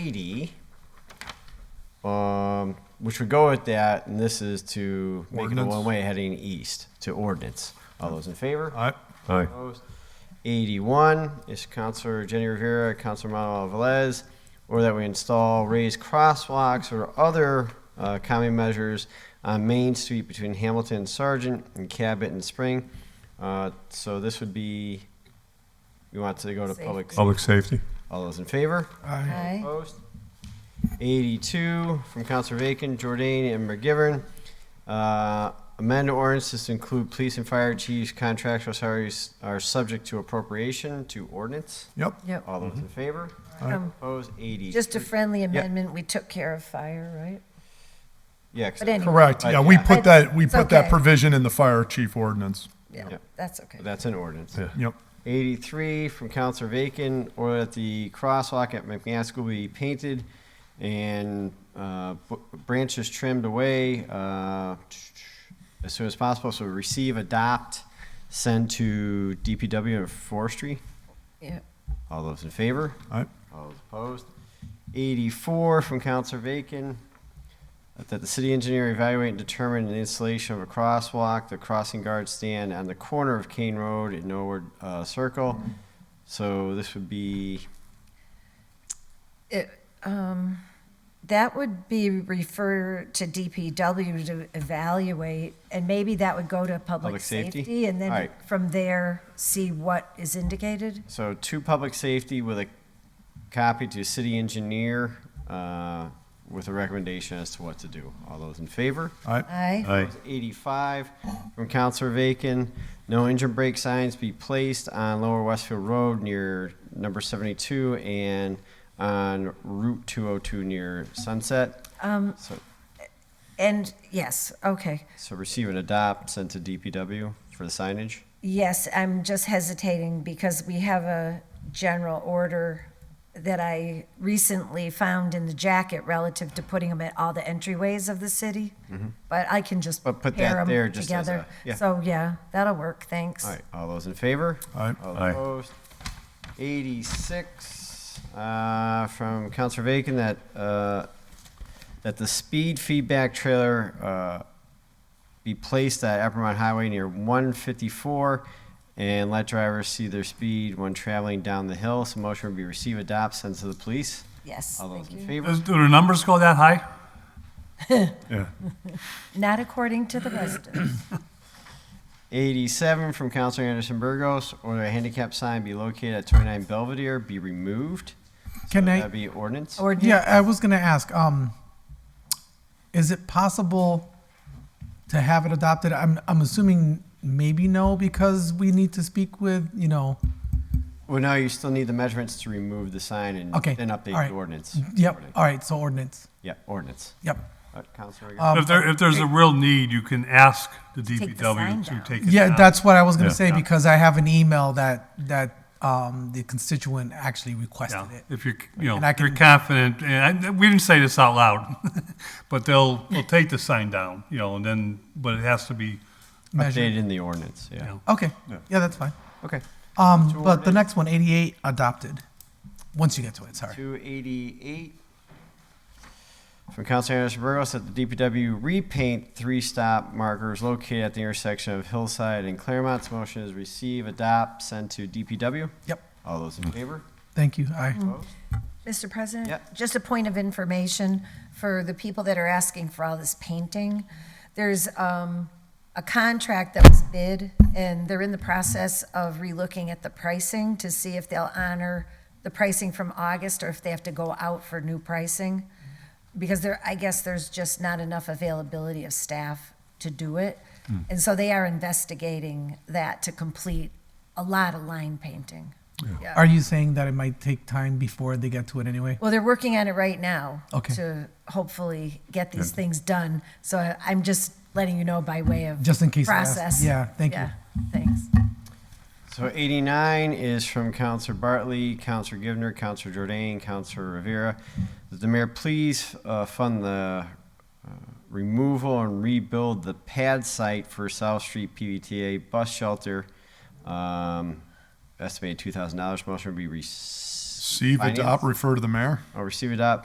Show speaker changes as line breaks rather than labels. eighty, um, which would go with that, and this is to make it a
Ordinance.
one-way heading east to ordinance. All those in favor?
Aye.
Aye.
Opposed? Eighty-one is Counselor Jenny Rivera, Counselor Manuel Velez, or that we install raised crosswalks or other uh, common measures on Main Street between Hamilton and Sargent and Cabot and Spring. Uh, So this would be, we want to go to public.
Public safety.
All those in favor?
Aye.
Opposed? 82 from Counselor Bacon, Jordan, and McGivern. Uh, Amend ordinances to include police and fire chiefs contractual salaries are subject to appropriation to ordinance.
Yep.
Yep.
All those in favor?
Um,
Opposed? 80.
Mm-hmm. Just a friendly amendment, we took care of fire, right?
Yeah. 'cause-
but anyway.
Correct.
Right,
Yeah, we
yeah.
put that, we
It's
put that
okay.
provision in the fire chief ordinance.
Yeah,
Yep.
that's okay.
That's an ordinance.
Yeah.
Yep.
83 from Counselor Bacon, or that the crosswalk at McMaskill be painted and uh, b- branches trimmed away uh, as soon as possible. So receive, adopt, send to DPW and forestry.
Yep.
All those in favor?
Aye.
All those opposed? 84 from Counselor Bacon, that the city engineer evaluate and determine the installation of a crosswalk, the crossing guard stand on the corner of Kane Road and Norwood uh, Circle. So this would be,
It, um, That would be referred to DPW to evaluate, and maybe that would go to
Public
public
safety?
safety, and
All
then
right.
from there, see what is indicated.
so to public safety with a copy to city engineer uh, with a recommendation as to what to do. All those in favor?
Aye.
Aye.
Aye.
85 from Counselor Vacan. No engine brake signs be placed on Lower Westfield Road near number 72 and on Route 202 near Sunset.
Um,
So,
and yes, okay.
so receive and adopt, sent to DPW for the signage.
Yes, I'm just hesitating because we have a general order that I recently found in the jacket relative to putting them at all the entryways of the city. But I can just
Mm-hmm. But put
pair
that
'em
there just as
together.
a- yeah.
So, yeah, that'll work, thanks.
All right, all those in favor?
Aye.
All
Aye.
opposed? 86 uh, from Counselor Vacan that, uh, that the speed feedback trailer uh, be placed at Eppermont Highway near 154 and let drivers see their speed when traveling down the hill. So motion would be receive, adopt, send to the police.
Yes,
All those
thank
in
you.
favor?
Does- Do the numbers go that high?
Yeah.
Not according to the residents.
87 from Counselor Anderson Burgos, or a handicap sign be located at 29 Belvedere be removed.
Can I?
That'd be ordinance.
Or do-
Yeah, I was gonna ask. Um, is it possible to have it adopted? I'm I'm assuming maybe no because we need to speak with you know.
Well, no, you still need the measurements to remove the sign and
Okay,
then update
all right. Mm-hmm.
the ordinance.
Yep.
Ordinance.
All right. So ordinance.
Yeah, ordinance.
Yep.
Uh, Counselor Regan?
Um,
If there, if there's a real need, you can ask the
the sign
DPW
down.
to take it
yeah,
down.
that's what I was gonna
Yeah.
say because I have an email that that um, the constituent actually requested
Yeah,
it.
If you're, you know,
And I
if you're
can-
confident, and I, we didn't say this out loud, but they'll, they'll take the sign down, you know, and then, but it has to be,
Uh, Measure.
Updated in the ordinance, yeah.
Yeah.
Okay. Yeah. that's fine.
Okay.
Um, but the next one, 88, adopted. Once you get to it, sorry.
288 from Counselor Anderson Burgos that the DPW repaint three-stop markers located at the intersection of Hillside and Claremont. So Motion is receive, adopt, send to DPW.
Yep.
All those in favor?
Thank you. Aye.
Mr. President?
Yeah.
Just a point of information for the people that are asking for all this painting. There's um, a contract that was bid, and they're in the process of relooking at the pricing to see if they'll honor the pricing from August or if they have to go out for new pricing. Because there, I guess there's just not enough availability of staff to do it. And so they are investigating that to complete a lot of line painting. Yeah.
Are you saying that it might take time before they get to it anyway?
Well, they're working on it right now.
Okay.
To hopefully get these things done. So I- I'm just letting you know by way of.
Just in case they ask.
Process.
Yeah, thank you.
Yeah, Thanks.
So 89 is from Counselor Bartley, Counselor Givner, Counselor Jordan, Counselor Rivera. That the mayor please uh, fund the uh, removal and rebuild the pad site for South Street PVTA bus shelter. Um, estimated $2,000. Motion would be received.
See if
Finance?
adopt, refer to the mayor.
or receive, adopt,